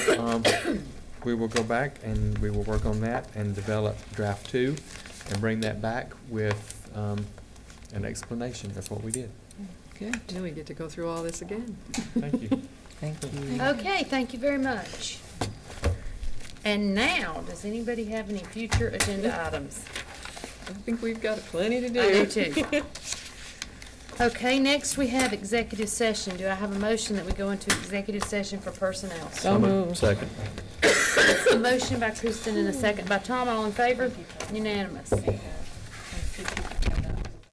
Um, We will go back and we will work on that and develop draft two and bring that back with um, an explanation of what we did. Okay, now we get to go through all this again. Thank you. Thank you. Okay, thank you very much. And now, does anybody have any future agenda items? I think we've got plenty to do. I do too. Okay, next we have executive session. Do I have a motion that we go into executive session for personnel? So moved. Second. A motion by Kristen and a second by Tom. All in favor? Unanimous.